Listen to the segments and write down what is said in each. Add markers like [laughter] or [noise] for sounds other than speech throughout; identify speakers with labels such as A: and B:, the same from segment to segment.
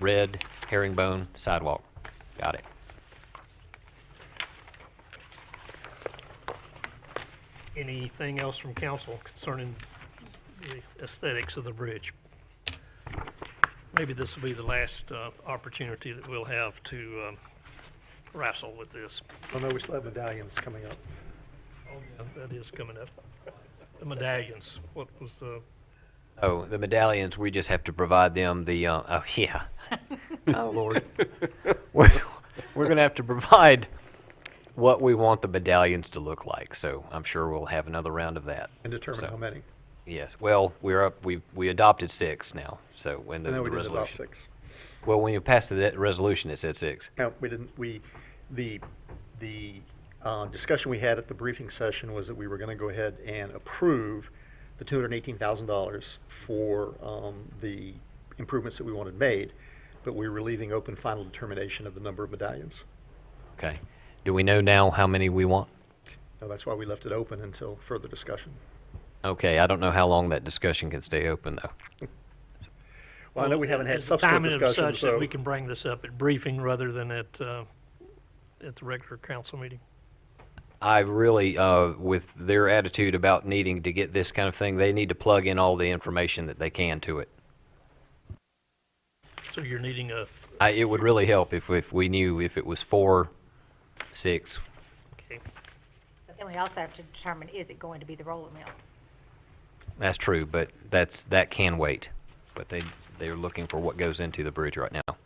A: red herringbone sidewalk. Got it.
B: Anything else from council concerning the aesthetics of the bridge? Maybe this will be the last uh, opportunity that we'll have to um, wrestle with this.
C: I know Oh, we still have medallions coming up. Oh,
B: That is coming up. The medallions, what was the,
A: Oh, the medallions, we just have to provide them the, uh, oh, [laughs] yeah. Oh, Lord.
C: [laughs]
A: We're, we're going to have to provide what we want the medallions to look like, so I'm sure we'll have another round of that.
C: And determine
A: So-
C: how many.
A: Yes, well, we're up, we, we adopted six now, so when the
C: I
A: the
C: know we didn't adopt
A: resolution.
C: six.
A: Well, when you passed the resolution, it said six.
C: No, we didn't, we, the, the uh, discussion we had at the briefing session was that we were going to go ahead and approve the $218,000 for um, the improvements that we wanted made, but we were leaving open final determination of the number of medallions.
A: Okay. Do we know now how many we want?
C: Now, that's why we left it open until further discussion.
A: Okay, I don't know how long that discussion can stay open, though.
C: Well, I know we haven't had
B: is the
C: subsequent
B: timing of
C: discussions,
B: such that
C: so,
B: we can bring this up at briefing rather than at, uh, at the regular council meeting?
A: I really, uh, with their attitude about needing to get this kind of thing, they need to plug in all the information that they can to it.
B: So you're needing a,
A: I, it would really help if, if we knew if it was four, six.
B: okay,
D: But then we also have to determine, is it going to be the roller mill?
A: That's true, but that's, that can wait. But they, they're looking for what goes into the bridge right now.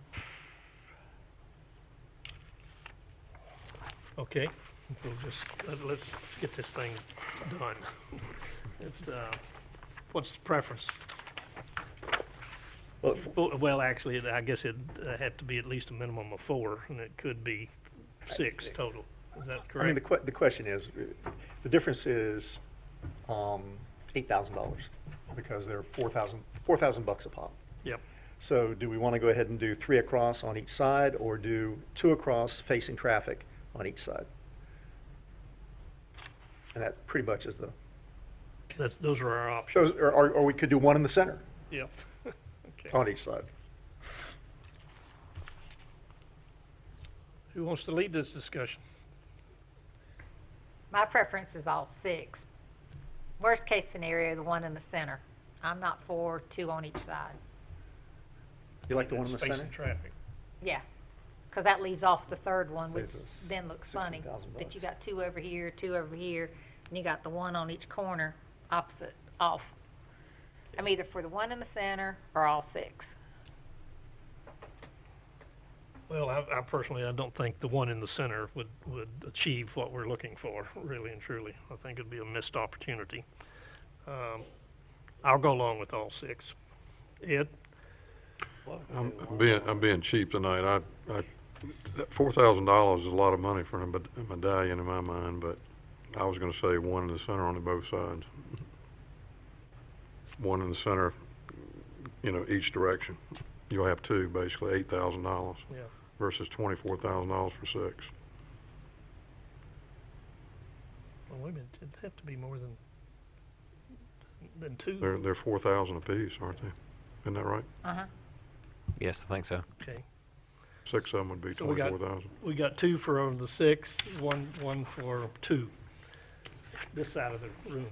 B: Okay, we'll just, let- let's get this thing done. It's, uh, what's the preference?
C: well, f-
B: Well- Well, actually, it- I guess it'd uh, have to be at least a minimum of four, and it could be six total. Is that
C: I mean, the
B: correct?
C: que, the question is, uh, the difference is, um, eight thousand dollars, because they're four thousand, four thousand bucks a pop.
B: Yep,
C: So do we want to go ahead and do three across on each side, or do two across facing traffic on each side? And that pretty much is the,
B: that's, those are our options,
C: shows, or, or or we could do one in the center
B: yep. [laughs] Okay.
C: on each side.
B: Who wants to lead this discussion?
D: My preference is all six. Worst case scenario, the one in the center. I'm not for two on each side.
C: You like the one in the
B: Space
C: center?
B: and traffic.
D: Yeah, because that leaves off the third one, which
C: Saves us
D: then looks funny.
C: $16,000
D: That you got two over here, two over here, and you got the one on each corner opposite, off. I'm either for the one in the center or all six.
B: Well, I, I personally, I don't think the one in the center would, would achieve what we're looking for, really and truly. I think it'd be a missed opportunity. Um, I'll go along with all six. Ed,
E: I'm I'm being, I'm being cheap tonight. I, I, that four thousand dollars is a lot of money for a med- a medallion in my mind, but I was gonna say one in the center on the both sides. One in the center, you know, each direction. You'll have two, basically, eight thousand dollars
B: yeah,
E: versus twenty-four thousand dollars for six.
B: well, wait a minute, it'd have to be more than, than two,
E: They're, they're four thousand apiece, aren't they? Isn't that right?
D: Uh-huh.
A: Yes, I think so.
B: okay.
E: Six of them would be
B: So we got-
E: twenty-four thousand.
B: We got two for over the six, one, one for two, this side of the room.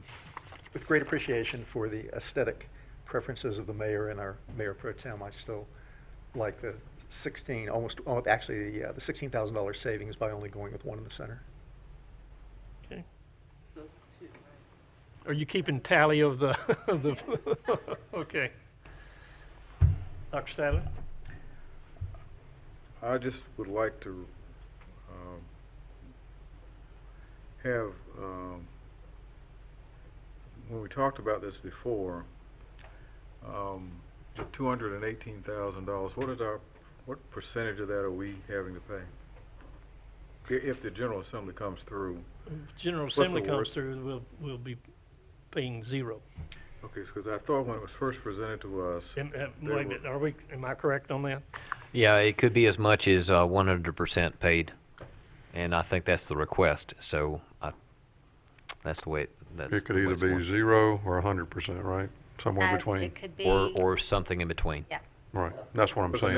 C: With great appreciation for the aesthetic preferences of the mayor and our mayor pro tem, I still like the sixteen, almost, oh, actually, yeah, the sixteen thousand dollar savings by only going with one in the center.
B: Are you keeping tally of the, [laughs] of the, okay. Dr. Sadler?
F: I just would like to um, have, um, when we talked about this before, um, the $218,000, what is our, what percentage of that are we having to pay? I- If the General Assembly comes through,
B: If General
F: the
B: Assembly comes
F: worst?
B: through, we'll, we'll be paying zero.
F: okay, because I thought when it was first presented to us,
B: Am- am-
F: They
B: wait a
F: were-
B: minute, are we, am I correct on that?
A: Yeah, it could be as much as, uh, one hundred percent paid. And I think that's the request, so I, that's the way, that's.
E: It could
A: the way
E: either
A: it's going.
E: be zero or a hundred percent, right? Somewhere
D: Uh,
E: between.
D: It could be.
A: Or, or something in between.
D: Yeah.
E: Right, that's what I'm
F: But the
E: saying.